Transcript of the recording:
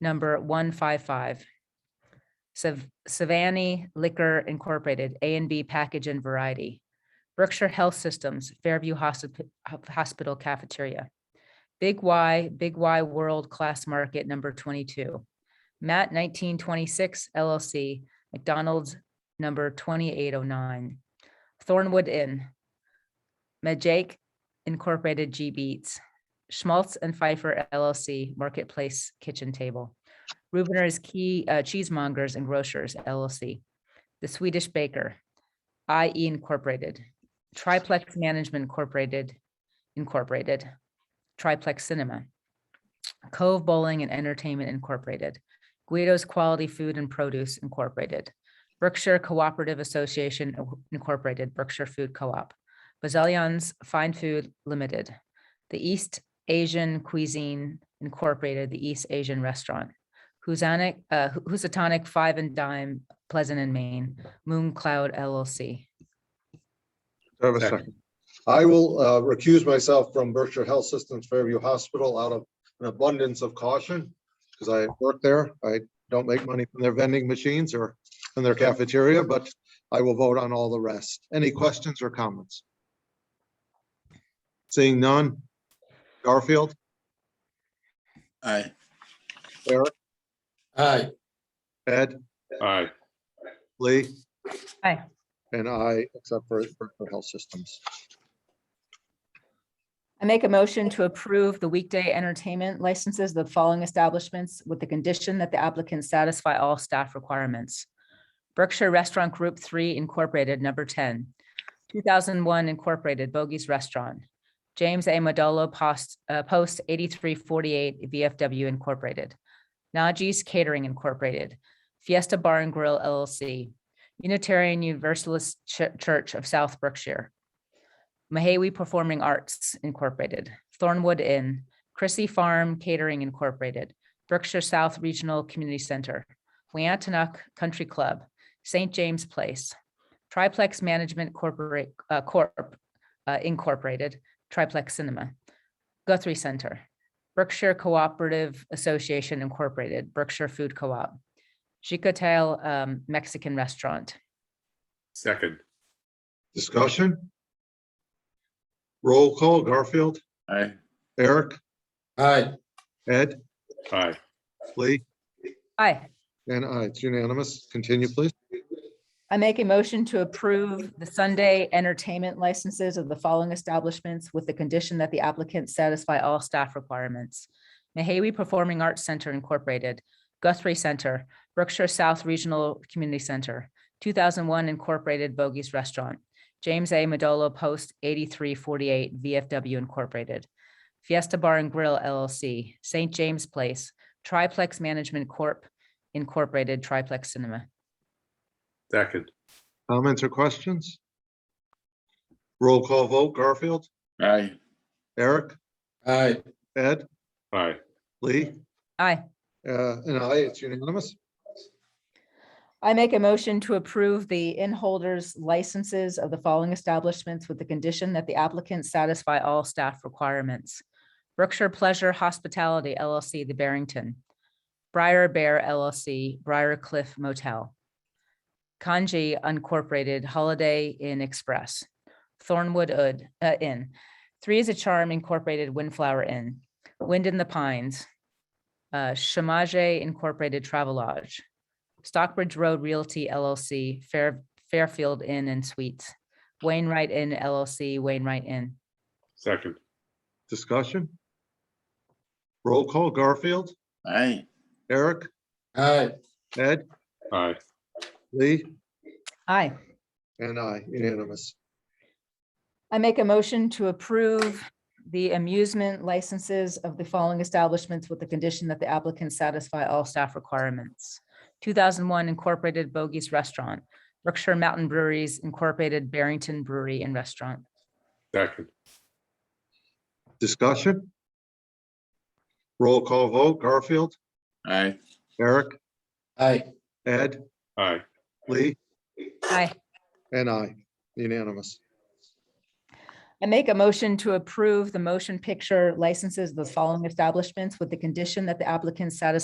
number one five five. Sav- Savani Liquor Incorporated, A and B Package and Variety. Berkshire Health Systems, Fairview Hospi- Ho- Hospital Cafeteria. Big Y, Big Y World Class Market, number twenty-two. Matt nineteen twenty-six LLC, McDonald's, number twenty-eight oh nine. Thornwood Inn. Majake Incorporated G Beats. Schmaltz and Pfeiffer LLC Marketplace Kitchen Table. Rubener's Key uh, Cheesemongers and Grocers LLC. The Swedish Baker. IE Incorporated. Triplex Management Incorporated. Incorporated. Triplex Cinema. Cove Bowling and Entertainment Incorporated. Guido's Quality Food and Produce Incorporated. Berkshire Cooperative Association Incorporated, Berkshire Food Co-op. Bazillion's Fine Food Limited. The East Asian Cuisine Incorporated, the East Asian Restaurant, Housatonic, uh, Hu- Housatonic Five and Dime, Pleasant and Maine, Moon Cloud LLC. Do I have a Second. second? I will uh, recuse myself from Berkshire Health Systems Fairview Hospital out of an abundance of caution because I work there. I don't make money from their vending machines or from their cafeteria, but I will vote on all the rest. Any questions or comments? Seeing none. Garfield, Aye. Eric, aye, Ed, Aye. Lee. Aye. And I, except for Berkshire Health Systems. I make a motion to approve the weekday entertainment licenses, the following establishments with the condition that the applicants satisfy all staff requirements. Berkshire Restaurant Group Three Incorporated, number ten. Two thousand one Incorporated Bogies Restaurant. James A. Modolo Post, uh, Post eighty-three forty-eight VFW Incorporated. Najee's Catering Incorporated. Fiesta Bar and Grill LLC. Unitarian Universalist Ch- Church of South Berkshire. Mahawi Performing Arts Incorporated, Thornwood Inn, Chrissy Farm Catering Incorporated, Berkshire South Regional Community Center, Weantenuck Country Club, St. James Place, Triplex Management Corporate, uh, Corp. uh, Incorporated, Triplex Cinema, Guthrie Center, Berkshire Cooperative Association Incorporated, Berkshire Food Co-op, Chicotel um, Mexican Restaurant, Second. Discussion? Roll call, Garfield, Aye. Eric, aye, Ed, Aye. Lee. Aye. And I, it's unanimous. Continue, please. I make a motion to approve the Sunday entertainment licenses of the following establishments with the condition that the applicants satisfy all staff requirements. Mahawi Performing Arts Center Incorporated, Guthrie Center, Berkshire South Regional Community Center, two thousand one Incorporated Bogies Restaurant, James A. Modolo Post eighty-three forty-eight VFW Incorporated, Fiesta Bar and Grill LLC, St. James Place, Triplex Management Corp. Incorporated Triplex Cinema. Second. Comments or questions? Roll call vote, Garfield, Aye. Eric, aye, Ed, Aye. Lee, Aye. uh, and I, it's unanimous. I make a motion to approve the in-holders licenses of the following establishments with the condition that the applicants satisfy all staff requirements. Brookshire Pleasure Hospitality LLC, The Barrington. Briar Bear LLC, Briar Cliff Motel. Kanji Incorporated Holiday Inn Express. Thornwood Ud- uh, Inn. Three is a Charm Incorporated Windflower Inn. Wind in the Pines. uh, Shamajay Incorporated Travelodge. Stockbridge Road Realty LLC, Fair, Fairfield Inn and Suites, Wainwright Inn LLC, Wainwright Inn. Second. Discussion? Roll call, Garfield, Aye. Eric, aye, Ed, Aye. Lee, Aye. and I, unanimous. I make a motion to approve the amusement licenses of the following establishments with the condition that the applicants satisfy all staff requirements. Two thousand one Incorporated Bogies Restaurant, Berkshire Mountain Breweries Incorporated Barrington Brewery and Restaurant. Second. Discussion? Roll call vote, Garfield, Aye. Eric, aye, Ed, Aye. Lee, Aye. and I, unanimous. I make a motion to approve the motion picture licenses of the following establishments with the condition that the applicants satisfy